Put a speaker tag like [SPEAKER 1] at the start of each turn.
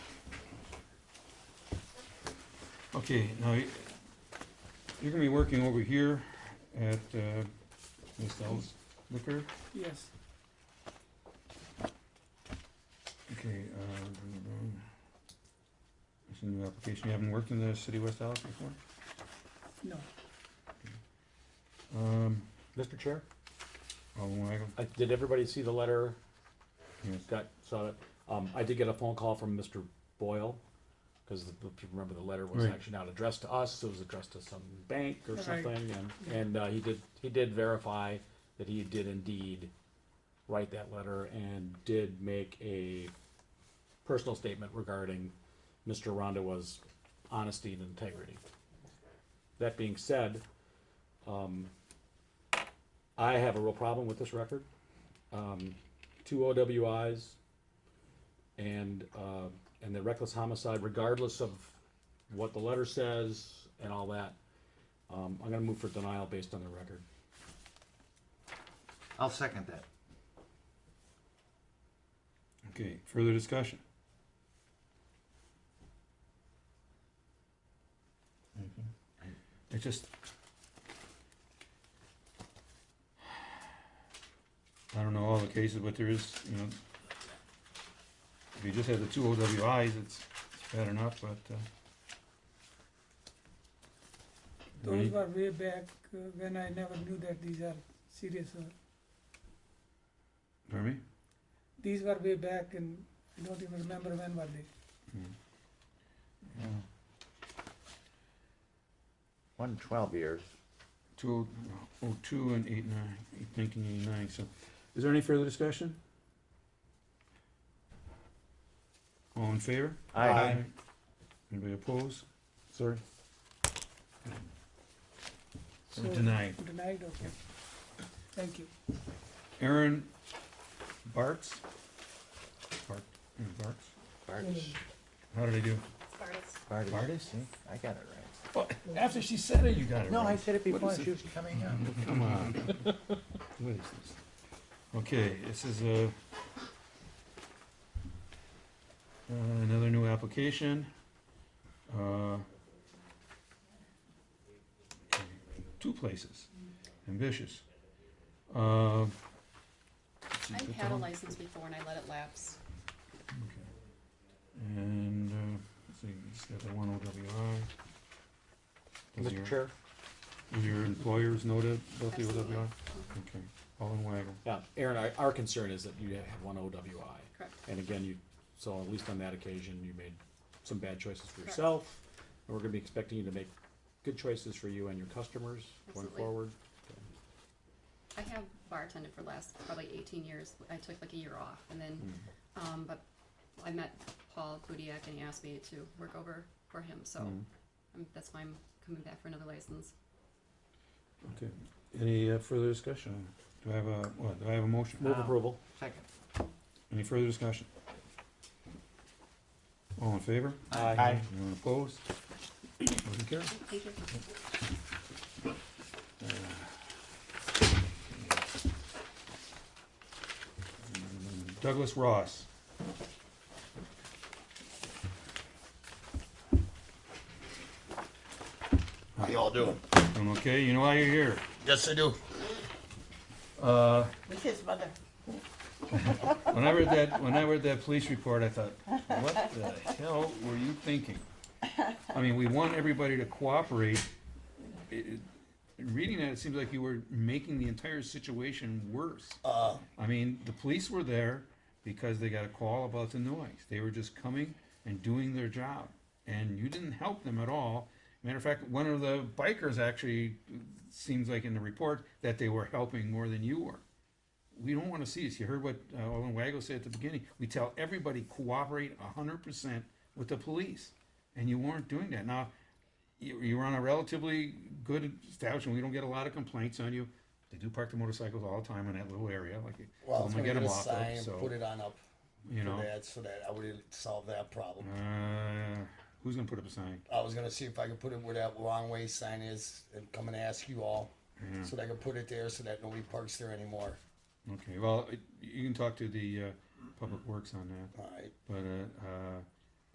[SPEAKER 1] Okay, now, y- you're gonna be working over here at, uh, Ms. Dell's liquor,
[SPEAKER 2] Yes.
[SPEAKER 1] okay, uh, it's a new application, you haven't worked in the city of West Dallas before?
[SPEAKER 2] No.
[SPEAKER 1] Um,
[SPEAKER 3] Mr. Chair,
[SPEAKER 1] Alderman Weigel,
[SPEAKER 3] I- did everybody see the letter?
[SPEAKER 1] yes,
[SPEAKER 3] Got, saw it? Um, I did get a phone call from Mr. Boyle, because if you remember, the letter was
[SPEAKER 1] Right.
[SPEAKER 3] actually not addressed to us, it was addressed to some bank or
[SPEAKER 2] Right.
[SPEAKER 3] something, and, and, uh, he did, he did verify that he did indeed write that letter and did make a personal statement regarding Mr. Rondawa's honesty and integrity. That being said, um, I have a real problem with this record. Um, two OWIs and, uh, and the reckless homicide, regardless of what the letter says and all that. Um, I'm gonna move for denial based on the record.
[SPEAKER 4] I'll second that.
[SPEAKER 1] okay, further discussion? It just. I don't know all the cases, but there is, you know, if you just have the two OWIs, it's it's bad enough, but, uh.
[SPEAKER 2] Those
[SPEAKER 1] we-
[SPEAKER 2] were way back uh, when I never knew that these are serious. uh,
[SPEAKER 1] Pardon me?
[SPEAKER 2] These were way back and I don't even remember when were they.
[SPEAKER 1] Mm-hmm.
[SPEAKER 4] One twelve years.
[SPEAKER 1] Two oh, oh two and eight nine, eight nineteen eighty-nine, so. Is there any further discussion? All in favor?
[SPEAKER 3] Aye.
[SPEAKER 1] Anybody opposed?
[SPEAKER 3] Sorry.
[SPEAKER 1] So
[SPEAKER 2] So-
[SPEAKER 1] denied.
[SPEAKER 2] Denied, okay. Thank you.
[SPEAKER 1] Aaron Bartz? Bart, Aaron Bartz?
[SPEAKER 5] Mm-hmm.
[SPEAKER 1] How did I do? Bartis,
[SPEAKER 4] I got it
[SPEAKER 1] Well, after she said it, you got it
[SPEAKER 4] No, I
[SPEAKER 1] right.
[SPEAKER 4] said it
[SPEAKER 1] What
[SPEAKER 4] before,
[SPEAKER 1] is it?
[SPEAKER 4] she was coming out.
[SPEAKER 1] Come on. What is this? Okay, this is a, uh, another new application. Uh, Two places, ambitious. Uh, let's see,
[SPEAKER 5] I've
[SPEAKER 1] put
[SPEAKER 5] had a
[SPEAKER 1] down-
[SPEAKER 5] license before and I let it lapse.
[SPEAKER 1] Okay. And, uh, let's see, it's got the one OWI. Does
[SPEAKER 3] Mr.
[SPEAKER 1] your-
[SPEAKER 3] Chair?
[SPEAKER 1] Does your employers know that, about the
[SPEAKER 5] Absolutely.
[SPEAKER 1] OWI? Okay, all in waggle.
[SPEAKER 3] Yeah, Aaron, our, our concern is that you have one OWI.
[SPEAKER 5] Correct.
[SPEAKER 3] And again, you, so at least on that occasion, you made some bad choices for
[SPEAKER 5] Correct.
[SPEAKER 3] yourself. And we're gonna be expecting you to make good choices for you and your customers going
[SPEAKER 5] Absolutely.
[SPEAKER 3] forward.
[SPEAKER 5] I have bartended for the last probably eighteen years. I took like a year off and then, um, but I met Paul Kudiak and he asked me to work over for him, so
[SPEAKER 1] Mhm.
[SPEAKER 5] um, that's why I'm coming back for another license.
[SPEAKER 1] Okay, any uh, further discussion? Do I have a, what, do I have a motion?
[SPEAKER 3] Move
[SPEAKER 4] Wow.
[SPEAKER 3] approval.
[SPEAKER 4] Second.
[SPEAKER 1] Any further discussion? All in favor?
[SPEAKER 4] Aye.
[SPEAKER 1] Anyone opposed? Motion carried.
[SPEAKER 5] Thank you.
[SPEAKER 1] Douglas Ross.
[SPEAKER 6] How y'all doing?
[SPEAKER 1] Doing okay? You know why you're here?
[SPEAKER 6] Yes, I do.
[SPEAKER 1] Uh,
[SPEAKER 7] With his mother.
[SPEAKER 1] when I read that, when I read that police report, I thought, what the hell were you thinking? I mean, we want everybody to cooperate. It- it- Reading that, it seems like you were making the entire situation worse.
[SPEAKER 6] Uh,
[SPEAKER 1] I mean, the police were there because they got a call about the noise. They were just coming and doing their job, and you didn't help them at all. Matter of fact, one of the bikers actually uh, seems like in the report that they were helping more than you were. We don't want to see this. You heard what uh, Olin Wago said at the beginning. We tell everybody cooperate hundred percent with the police, and you weren't doing that. Now, you, you were on a relatively good establishment. We don't get a lot of complaints on you. They do park the motorcycles all the time in that little area. Like,
[SPEAKER 6] well,
[SPEAKER 1] I'm
[SPEAKER 6] I'm
[SPEAKER 1] gonna get
[SPEAKER 6] gonna get
[SPEAKER 1] 'em
[SPEAKER 6] a
[SPEAKER 1] off there,
[SPEAKER 6] sign
[SPEAKER 1] so,
[SPEAKER 6] and put it on up
[SPEAKER 1] you
[SPEAKER 6] for
[SPEAKER 1] know,
[SPEAKER 6] that, so that I would solve that problem.
[SPEAKER 1] uh, who's gonna put up a sign?
[SPEAKER 6] I was gonna see if I could put it where that wrong way sign is and come and ask you all,
[SPEAKER 1] Mm-hmm.
[SPEAKER 6] so that I could put it there so that nobody parks there anymore.
[SPEAKER 1] Okay, well, it- you can talk to the uh, public works on that,
[SPEAKER 6] Alright,
[SPEAKER 1] but uh, uh,